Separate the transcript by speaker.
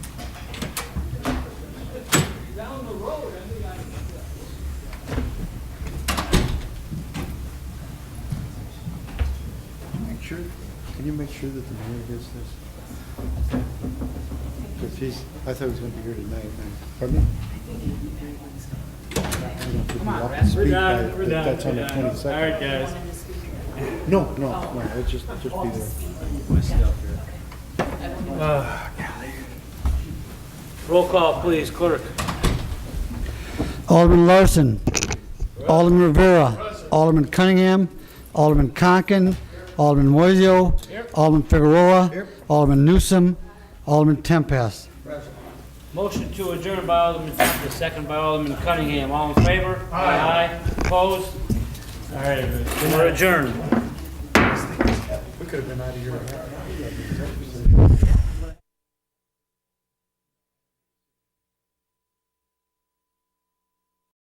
Speaker 1: Can you make sure that the mayor gets this? Because he's, I thought he was going to be here tonight. and- Pardon me? I don't know if he'll be up to
Speaker 2: We're
Speaker 1: speak by-
Speaker 2: done, we're
Speaker 1: if
Speaker 2: done.
Speaker 1: That's on the
Speaker 2: we're done. All
Speaker 1: twenty-second.
Speaker 2: right, guys.
Speaker 1: No, no, no, it's just, just be there.
Speaker 2: Ah, Roll call, please, clerk.
Speaker 3: Alderman Larson. Alderman Rivera. Alderman Cunningham. Alderman Conken. Alderman Moiseo. Alderman Figueroa. Alderman Newsom. Alderman Tempest.
Speaker 2: Motion to adjourn by Alderman Tempest, second by Alderman Cunningham. All in favor? Aye. Opposed? All right, everybody. we're adjourned.
Speaker 1: We could have been out of here.